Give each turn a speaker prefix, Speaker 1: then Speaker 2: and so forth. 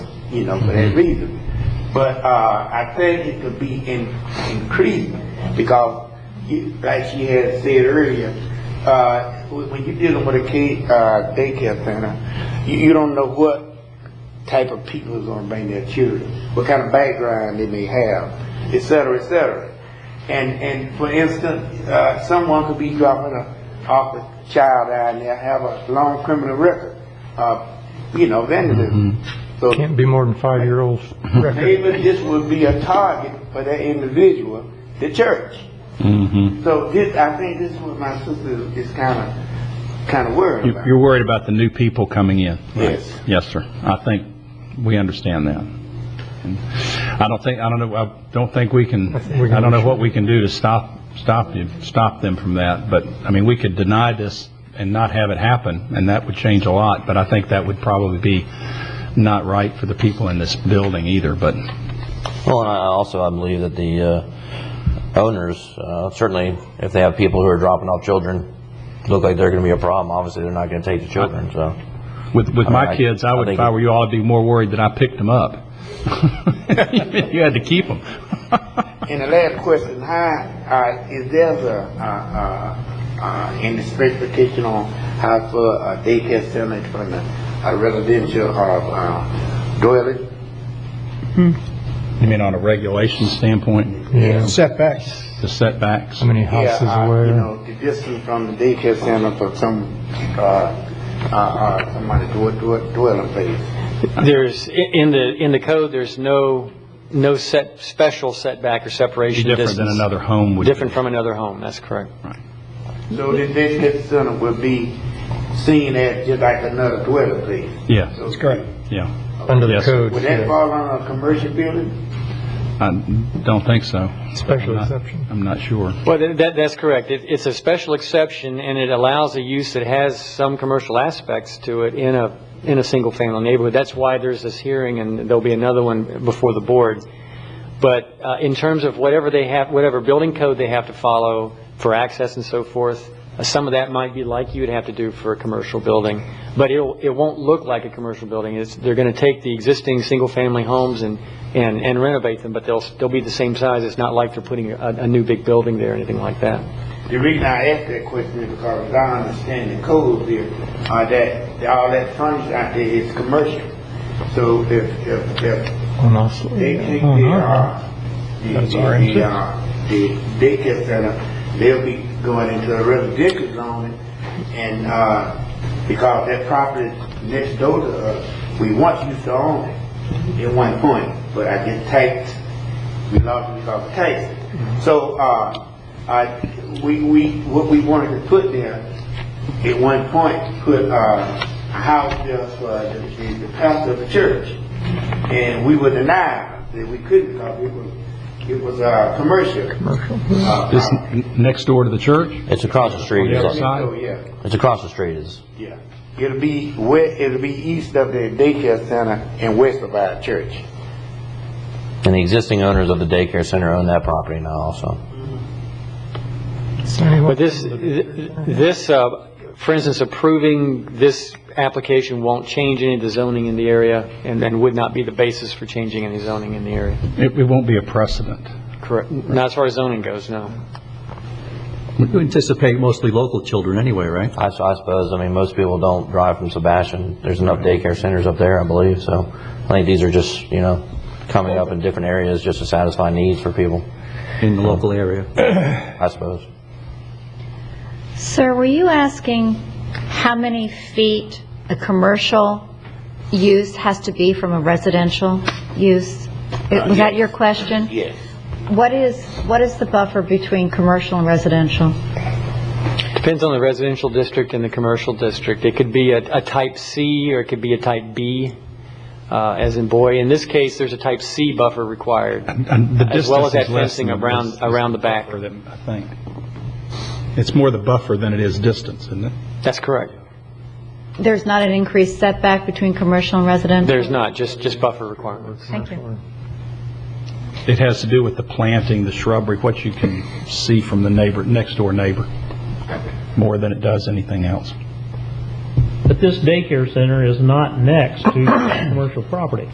Speaker 1: you know, for that reason. But, uh, I think it could be in, increased, because you, like she had said earlier, uh, when when you're dealing with a kid, uh, daycare center, you, you don't know what type of people is gonna bring their children, what kind of background they may have, et cetera, et cetera. And, and for instance, uh, someone could be dropping a, off a child out and they have a long criminal record, uh, you know, vandalism. So
Speaker 2: Can't be more than five-year-olds.
Speaker 1: maybe this would be a target for that individual, the church.
Speaker 3: Mm-hmm.
Speaker 1: So this, I think this is what my sister is kinda, kinda worried about.
Speaker 3: You're worried about the new people coming in?
Speaker 1: Yes.
Speaker 3: Yes, sir. I think we understand that. And I don't think, I don't know, I don't think we can,
Speaker 2: think we can
Speaker 3: I don't know what we can do to stop, stop you, stop them from that, but, I mean, we could deny this and not have it happen, and that would change a lot, but I think that would probably be not right for the people in this building either, but,
Speaker 4: Well, and I also, I believe that the uh, owners, uh, certainly if they have people who are dropping off children, look like they're going to be a problem, obviously they're not going to take the children, so.
Speaker 3: With, with
Speaker 4: I mean,
Speaker 3: my
Speaker 4: I-
Speaker 3: kids, I
Speaker 4: I
Speaker 3: would, if
Speaker 4: think
Speaker 3: I
Speaker 4: it-
Speaker 3: were you, all, I'd be more worried that I picked them up. You had to keep them.
Speaker 1: And the last question, how, uh, is there a, uh, uh, uh, any specification on how for a daycare center from a residential or, uh, dwelling?
Speaker 3: You mean on a regulation standpoint,
Speaker 2: Yeah.
Speaker 5: setbacks.
Speaker 3: the setbacks?
Speaker 2: How many
Speaker 1: Yeah,
Speaker 2: houses
Speaker 1: uh, You
Speaker 2: away?
Speaker 1: know, the distance from the daycare center for some, uh, uh, uh, somebody dwe- dwe- dwelling place.
Speaker 5: There's, i- in the, in the code, there's no, no set, special setback
Speaker 3: Be
Speaker 5: or separation
Speaker 3: different than
Speaker 5: distance.
Speaker 3: another home would. be.
Speaker 5: Different from another home, that's correct.
Speaker 1: So the daycare center will be seen as just like another dwelling place.
Speaker 3: Yeah,
Speaker 1: That's correct.
Speaker 3: yeah.
Speaker 2: Under the
Speaker 3: Yes.
Speaker 2: code,
Speaker 1: Would that
Speaker 2: yeah.
Speaker 1: fall on a commercial building?
Speaker 3: I don't think so.
Speaker 2: Special
Speaker 3: I'm not-
Speaker 2: exception.
Speaker 3: I'm not sure.
Speaker 5: Well, tha- that, that's correct. It, it's a special exception, and it allows a use that has some commercial aspects to it in a, in a single-family neighborhood. That's why there's this hearing, and there'll be another one before the board. But uh, in terms of whatever they have, whatever building code they have to follow for access and so forth, uh, some of that might be like you'd have to do for a commercial building, but it'll, it won't look like a commercial building. It's, they're going to take the existing single-family homes and, and and renovate them, but they'll, they'll be the same size. It's not like they're putting a, a new big building there or anything like that.
Speaker 1: The reason I ask that question is because as I understand the codes here, uh, that, that all that furniture out there is commercial. So if, if, if
Speaker 2: And also-
Speaker 1: they think
Speaker 2: Oh,
Speaker 1: they
Speaker 2: no.
Speaker 1: are, the,
Speaker 2: That's orange.
Speaker 1: the, uh, the daycare center, they'll be going into a residential zone and, uh, because that property next door to us, we once used to own it at one point, but I get taxed, we lost it because of taxes. So, uh, I, we, we, what we wanted to put there, at one point, put, uh, a house there for the, the- the pastor of the church. And we were denied that we couldn't, because it was, it was, uh, commercial. Commercial.
Speaker 3: This n- next door to the church?
Speaker 4: It's across the street,
Speaker 3: Yeah.
Speaker 4: is it?
Speaker 3: side?
Speaker 1: So, yeah,
Speaker 4: it's across the street, is.
Speaker 1: yeah. It'll be west, it'll be east of the daycare center and west of our church.
Speaker 4: And the existing owners of the daycare center own that property now also.
Speaker 5: But this, this, uh, for instance, approving this application won't change any of the zoning in the area and and would not be the basis for changing any zoning in the area.
Speaker 3: It, it won't be a precedent.
Speaker 5: Correct. Not as far as zoning goes, no.
Speaker 6: You anticipate mostly local children anyway, right?
Speaker 4: I, so I suppose, I mean, most people don't drive from Sebastian. There's enough daycare centers up there, I believe, so I think these are just, you know, coming up in different areas just to satisfy needs for people,
Speaker 6: In the local area.
Speaker 4: I suppose.
Speaker 7: Sir, were you asking how many feet a commercial use has to be from a residential use? It- Was that your question?
Speaker 1: Yes.
Speaker 7: What is, what is the buffer between commercial and residential?
Speaker 5: Depends on the residential district and the commercial district. It could be a, a type C or it could be a type B, uh, as in boy. In this case, there's a type C buffer required.
Speaker 3: And the
Speaker 5: As well as
Speaker 3: distance is
Speaker 5: that
Speaker 3: less
Speaker 5: fencing
Speaker 3: than the
Speaker 5: around-
Speaker 3: distance
Speaker 5: around the back.
Speaker 3: buffer that- I think. It's more the buffer than it is distance, isn't it?
Speaker 5: That's correct.
Speaker 7: There's not an increased setback between commercial and residential?
Speaker 5: There's not, just, just buffer requirements.
Speaker 7: Thank you.
Speaker 3: It has to do with the planting, the shrubbery, what you can see from the neighbor, next door neighbor, more than it does anything else.
Speaker 8: But this daycare center is not next to commercial property.